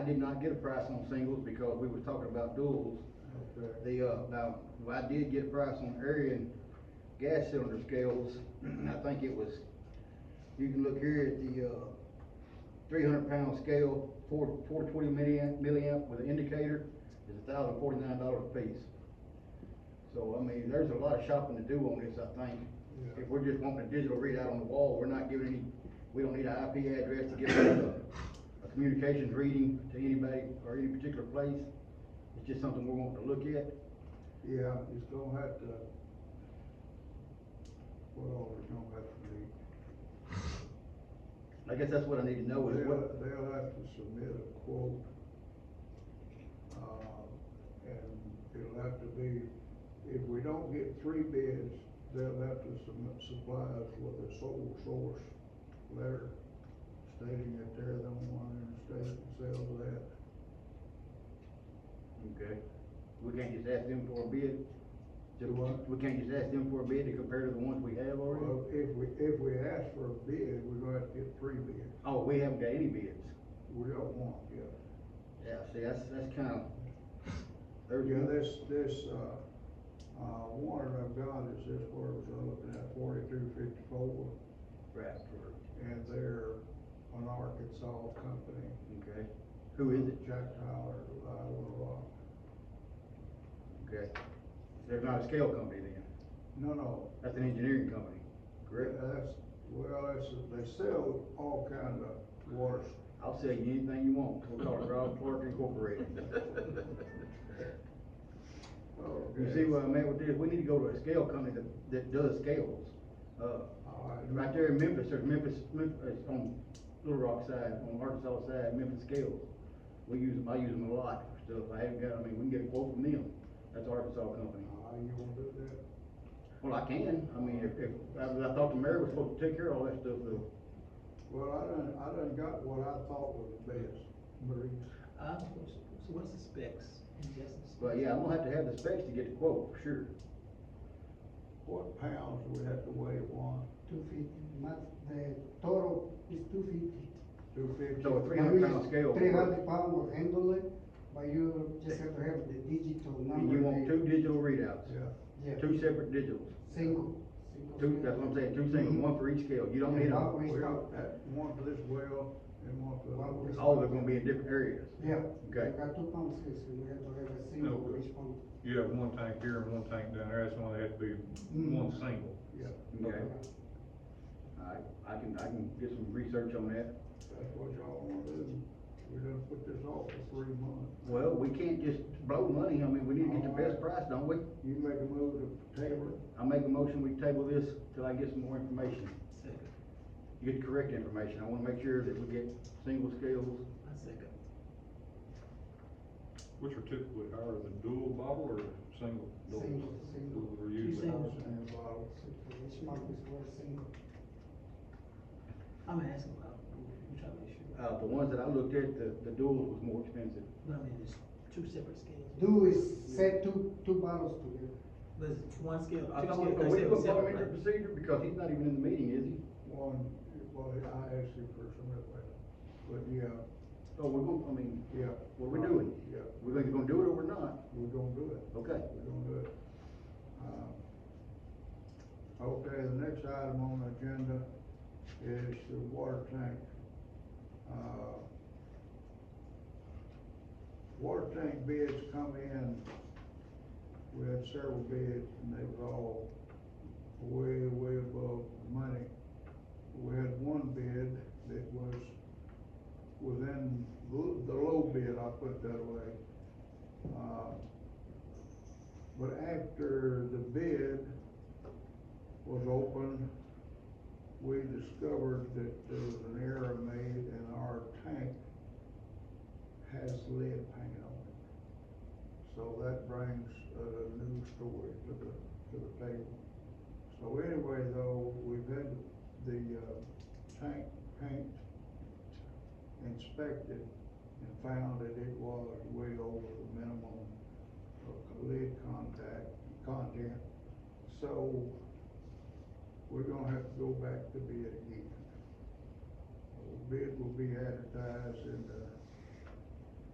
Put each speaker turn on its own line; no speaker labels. I did not get a price on singles because we were talking about duals. The, uh, now, I did get a price on area and gas cylinder scales. I think it was, you can look here at the, uh, three hundred pound scale, four, four twenty milliamp, milliamp with an indicator, is a thousand forty-nine dollars a piece. So, I mean, there's a lot of shopping to do on this, I think.
Yeah.
If we're just wanting a digital readout on the wall, we're not giving any, we don't need an IP address to give a, a communications reading to anybody or any particular place. It's just something we're wanting to look at.
Yeah, it's gonna have to, what all it's gonna have to be.
I guess that's what I need to know is
They'll,
what,
they'll have to submit a quote. Uh, and it'll have to be, if we don't get three bids, they'll have to submit, supply us with a sole source letter stating that they're the only one in the state that sells that.
okay, we can't just ask them for a bid.
Do what?
We can't just ask them for a bid to compare to the ones we have already?
Well, if we, if we ask for a bid, we're gonna have to get three bids.
Oh, we haven't got any bids.
We don't want, yeah.
Yeah, see, that's, that's kind of.
Yeah, this, this, uh, uh, one I've got is this where we're looking at forty-two fifty-four,
Right,
and they're an Arkansas company.
okay. Who is it?
Jack Tyler, uh, Iowa Rock.
Okay. They're not a scale company then.
No, no. Uh,
That's an engineering company. Correct.
That's, well, that's, they sell all kind of water.
I'll sell you anything you want. We'll call it Rob Clark Incorporated.
uh,
You see where I'm at with this? We need to go to a scale company that, that does scales. Uh,
All right.
right there in Memphis, there's Memphis, Memphis, uh, on Little Rock side, on Arkansas side, Memphis scales. We use them, I use them a lot for stuff. I haven't got, I mean, we can get a quote from them. That's Arkansas company.
Uh, you wanna do that?
Well, I can, I mean, if, if, I, I thought the mayor was supposed to take care of all that stuff, though.
Well, I done, I done got what I thought was the best, Marie.
Uh, what's- so what's the specs? Any guesses?
But yeah, I'm gonna have to have the specs to get the quote, for sure.
What pounds do we have to weigh one?
Two feet, max, the total is two feet.
Two fifty?
So a three hundred pound scale.
Three hundred pound will handle it, but you just have to have the digital number.
And you want
there.
two digital readouts,
Yeah.
Yeah,
two separate digitals,
single. single
two,
scale.
that's what I'm saying, two single, one for each scale, you don't need all,
We
Well,
have-
that, one for this well and one for
One for
the other.
this
all of them gonna be in different areas.
Yeah.
Okay.
We got two pumps, so we have to have a single
No.
which pump.
You have one tank here and one tank down there, that's why they have to be
Mm.
one single.
Yeah,
Okay, alright, I can, I can get some research on that.
that's what y'all wanna do. We're gonna put this off for three months.
Well, we can't just blow money, I mean, we need to get the best price, don't we?
You make a move to table it?
I make a motion, we table this till I get some more information,
Second,
get the correct information, I wanna make sure that we get single scales.
I second.
Which are typically higher, the dual bottle or single?
Single, single.
Dual are usually-
Two singles.
And bottle.
So for each pump is for a single.
I'm asking about, I'm trying to make sure.
Uh, the ones that I looked at, the, the duals was more expensive.
But I mean, it's two separate scales.
Do is set two, two bottles together.
But it's one scale,
I
two
thought,
scales,
are
they
Uh, we gonna
still
put him
separate.
into
right?
procedure, because he's not even in the meeting, is he?
One, well, I asked you for some of that, but yeah,
So we're gonna, I mean,
yeah.
what are we doing?
Yeah,
We're either gonna do it or we're not,
we're gonna do it.
okay?
We're gonna do it. Um, Okay, the next item on the agenda is the water tank. Uh, Water tank bids come in, we had several bids, and they was all way, way above the money. We had one bid that was within the the low bid, I'll put it that way. Uh, but after the bid was opened, we discovered that there was an error made and our tank has lead paint on it. So that brings a new story to the, to the table. So anyway, though, we've had the, uh, tank paint inspected and found that it was way over the minimum of lead contact, content. So we're gonna have to go back to bid again. The Bid will be advertised in the